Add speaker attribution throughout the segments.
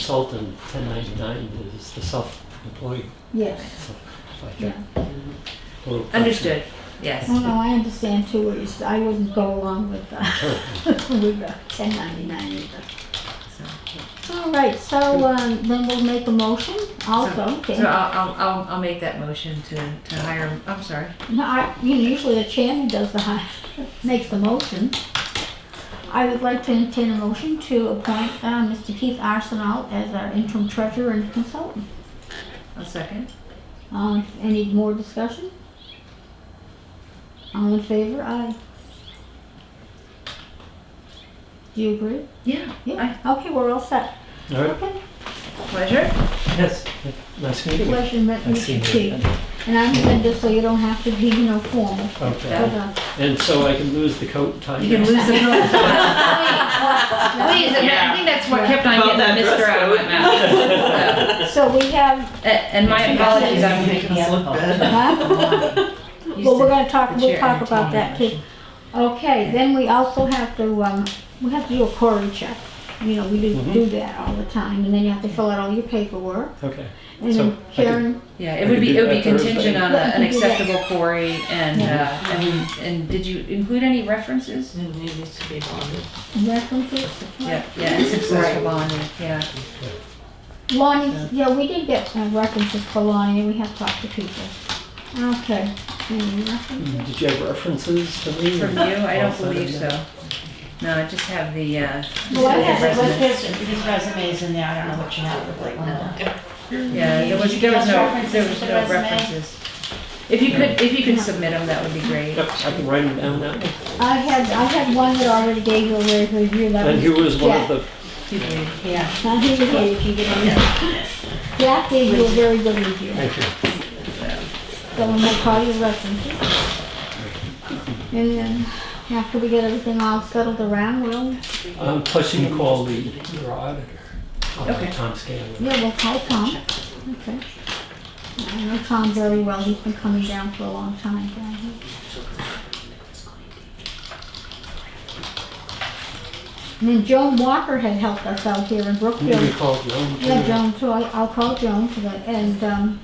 Speaker 1: consultant 1099 is the self-employed.
Speaker 2: Yes,
Speaker 1: if I
Speaker 2: yeah.
Speaker 1: can- a little
Speaker 3: Understood, yes.
Speaker 2: No, no, I understand too, it's, I wouldn't go along with, uh, with the ten ninety-nine either. All right, so, um, then we'll make a motion also, okay?
Speaker 3: So I'll, I'll, I'll, I'll make that motion to, to hire, I'm sorry.
Speaker 2: No, I, you know, usually the chairman does the, hi- makes the motion. I would like to entertain a motion to appoint, uh, Mr. Keith Arsenal as our interim treasurer and consultant.
Speaker 3: A second.
Speaker 2: Um, any more discussion? All in favor? Aye. Do you agree?
Speaker 3: Yeah.
Speaker 2: Yeah, okay, we're all set.
Speaker 1: All right,
Speaker 2: Okay,
Speaker 3: Pleasure.
Speaker 1: yes, nice meeting you.
Speaker 2: pleasure met
Speaker 1: Nice
Speaker 2: Mr.
Speaker 1: meeting you.
Speaker 2: Keith. And I'm doing this so you don't have to be, you know, formal.
Speaker 1: Okay,
Speaker 2: But, uh,
Speaker 1: and so I can lose the coat and tie.
Speaker 3: You can
Speaker 1: now?
Speaker 3: lose the Please, I
Speaker 4: Yeah.
Speaker 3: think that's what kept on getting Mr. out of my mouth.
Speaker 2: So we have,
Speaker 3: So, a- And my apologies, I'm making us look bad.
Speaker 2: huh? Well, we're gonna talk,
Speaker 3: the
Speaker 2: we'll
Speaker 3: chair
Speaker 2: talk about
Speaker 3: entertained
Speaker 2: that
Speaker 3: the
Speaker 2: too. Okay, then we also have to, um, we have to do a query check. You know, we do,
Speaker 3: Mm-hmm.
Speaker 1: Mhm.
Speaker 2: do that all the time, and then you have to fill out all your paperwork.
Speaker 1: Okay,
Speaker 2: And
Speaker 1: So,
Speaker 2: then
Speaker 1: I can-
Speaker 2: Karen,
Speaker 3: Yeah,
Speaker 1: I
Speaker 3: it would
Speaker 1: could do
Speaker 3: be, it would be
Speaker 1: that Thursday.
Speaker 3: contingent on a-
Speaker 2: Yeah,
Speaker 3: an
Speaker 2: you can do that.
Speaker 3: acceptable quarry and, uh, and, and did you include any references?
Speaker 4: It needs to be bonded.
Speaker 2: references?
Speaker 3: Yeah, yeah, and successful bonding, yeah.
Speaker 2: Lonnie, yeah, we did get uh, references for Lonnie, and we have talked to people. Okay. Any references?
Speaker 1: did you have references to me?
Speaker 3: From you, I don't
Speaker 1: Also,
Speaker 3: believe
Speaker 1: yeah.
Speaker 3: so. No, I just have the, uh,
Speaker 2: Well, I
Speaker 5: Yeah,
Speaker 2: have
Speaker 5: but
Speaker 2: it
Speaker 5: with
Speaker 2: with-
Speaker 5: his, his resumes in there, I don't know what you have, but like one of them.
Speaker 3: Yeah, there was,
Speaker 5: Did you
Speaker 3: there was
Speaker 5: give us
Speaker 3: no,
Speaker 5: references
Speaker 3: there was
Speaker 5: to the
Speaker 3: no
Speaker 5: resume?
Speaker 3: references. If you could, if you could submit them, that would be great.
Speaker 1: Yep, I can write them down now.
Speaker 2: I had, I had one that already gave you a rave review, that
Speaker 1: And
Speaker 2: was.
Speaker 1: he was one of
Speaker 2: Jack.
Speaker 1: the,
Speaker 5: Yeah.
Speaker 2: Now, here you go, you can get on that. Jack gave you a very good review,
Speaker 1: thank you.
Speaker 2: so I'm gonna call you references. And then, after we get everything all settled around, we'll,
Speaker 1: Um, Plus you can call the your auditor, uh,
Speaker 3: Okay.
Speaker 1: Tom Scanlon.
Speaker 2: yeah, we'll call Tom. Okay. I know Tom very well, he's been coming down for a long time down here. And then Joan Walker had helped us out here in
Speaker 1: You
Speaker 2: Brookfield
Speaker 1: can call Joan.
Speaker 2: Yeah,
Speaker 1: too.
Speaker 2: Joan, too. I- I'll call Joan for that, and, um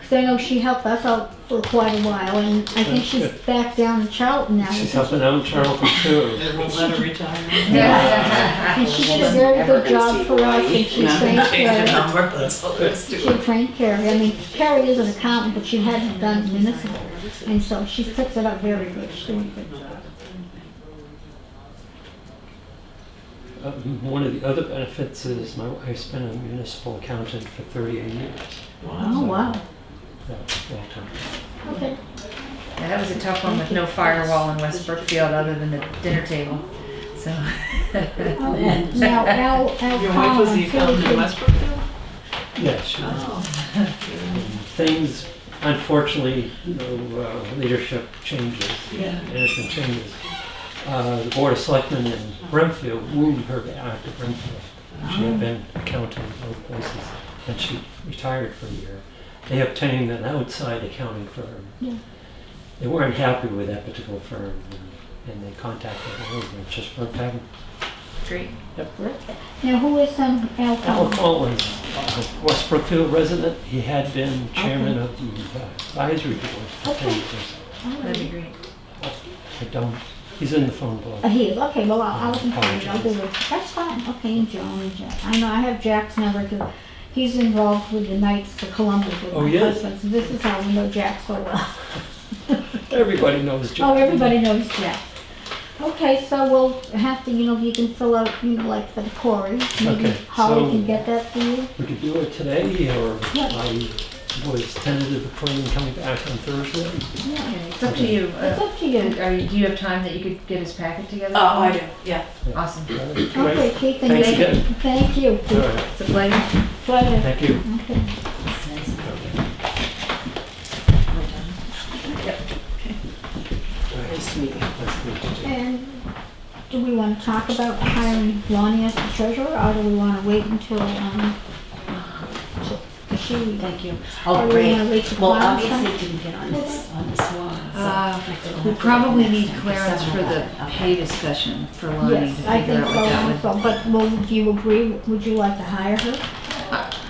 Speaker 2: 'cause I know she helped us out for quite a while, and I think she's back down in Charlton now.
Speaker 1: She's helping out in Charlton too.
Speaker 4: It will let her retire.
Speaker 3: Yeah.
Speaker 2: And she did a very good job for us, and she trained
Speaker 4: Change the
Speaker 2: Carrie.
Speaker 4: number, that's all there is to
Speaker 2: She
Speaker 4: it.
Speaker 2: trained Carrie, I mean, Carrie is an accountant, but she hadn't done municipal, and so she picks it up very good, she's doing a good job.
Speaker 1: Um, One of the other benefits is my wife's been a municipal accountant for 38 years.
Speaker 2: Oh, wow,
Speaker 1: Yeah, long time.
Speaker 2: okay.
Speaker 3: Yeah, that was a tough one with no firewall in West Brookfield other than the dinner table, so.
Speaker 2: Oh, Now, Al, Al
Speaker 4: Your wife was
Speaker 2: Collins,
Speaker 4: the
Speaker 2: he was
Speaker 4: accountant in
Speaker 2: the-
Speaker 4: Westbrook?
Speaker 1: Yeah, she was.
Speaker 4: Oh.
Speaker 1: Things, unfortunately, you know, uh, leadership changes,
Speaker 4: Yeah.
Speaker 1: management changes. Uh, The Board of Selectmen in Brimfield moved her back to Brimfield. She had been accounting in both places, and she retired for a year. They obtained an outside accounting firm.
Speaker 2: Yeah.
Speaker 1: They weren't happy with that particular firm, and- and they contacted her, and it just weren't having
Speaker 3: Great.
Speaker 2: now who is, um,
Speaker 4: Oh.
Speaker 2: Al
Speaker 1: Al
Speaker 2: Collins?
Speaker 1: Collins, a West Brookfield resident, he had been chairman of the advisory board for ten
Speaker 2: Okay.
Speaker 1: years.
Speaker 3: That'd be great.
Speaker 1: I don't, he's in the phone
Speaker 2: Uh,
Speaker 1: book.
Speaker 2: He is, okay, well, I'll, I'll inform you, I'll do
Speaker 1: Apologies.
Speaker 2: it. That's fine, okay, and Joan and Jack. I know, I have Jack's number too. He's involved with the Knights of Columbus with
Speaker 1: Oh,
Speaker 2: my
Speaker 1: yes?
Speaker 2: husband, so this is how we know Jack so well.
Speaker 1: Everybody knows Jack.
Speaker 2: Oh, everybody knows Jack. Okay, so we'll have to, you know, you can fill out, you know, like for the Cory. Maybe
Speaker 1: Okay,
Speaker 2: Holly
Speaker 1: so-
Speaker 2: can get that for you.
Speaker 1: We could do it today, or
Speaker 2: Yeah.
Speaker 1: I was tentative planning coming back on Thursday.
Speaker 2: Yeah,
Speaker 3: Okay, It's up to you.
Speaker 2: it's
Speaker 3: Uh,
Speaker 2: up to you.
Speaker 3: Are you, do you have time that you could get his packet together?
Speaker 4: Oh, I do, yeah.
Speaker 3: Awesome.
Speaker 2: Okay, Keith, and
Speaker 1: Thanks
Speaker 2: thank
Speaker 1: again.
Speaker 2: you. Thank you,
Speaker 1: All
Speaker 2: Keith.
Speaker 1: right,
Speaker 3: It's a pleasure.
Speaker 2: Pleasure.
Speaker 1: thank you.
Speaker 2: Okay.
Speaker 4: Nice to meet you.
Speaker 1: Nice to meet you, Jack.
Speaker 2: And do we want to talk about hiring Lonnie as the treasurer, or do we want to wait until, um, because she,
Speaker 5: Thank you.
Speaker 2: Oh,
Speaker 5: Oh,
Speaker 2: we wanna
Speaker 5: great.
Speaker 2: reach the
Speaker 5: Well,
Speaker 2: flowers, huh?
Speaker 5: obviously it didn't get on this, on this one. so
Speaker 3: Uh,
Speaker 5: I couldn't
Speaker 3: We
Speaker 5: have to
Speaker 3: probably
Speaker 5: go
Speaker 3: need
Speaker 5: next time.
Speaker 3: clearance for the
Speaker 5: Okay.
Speaker 3: pay discussion for Lonnie to
Speaker 2: yes, I
Speaker 3: figure
Speaker 2: think
Speaker 3: out what that would.
Speaker 2: so also, but will, do you agree, would you like to hire her?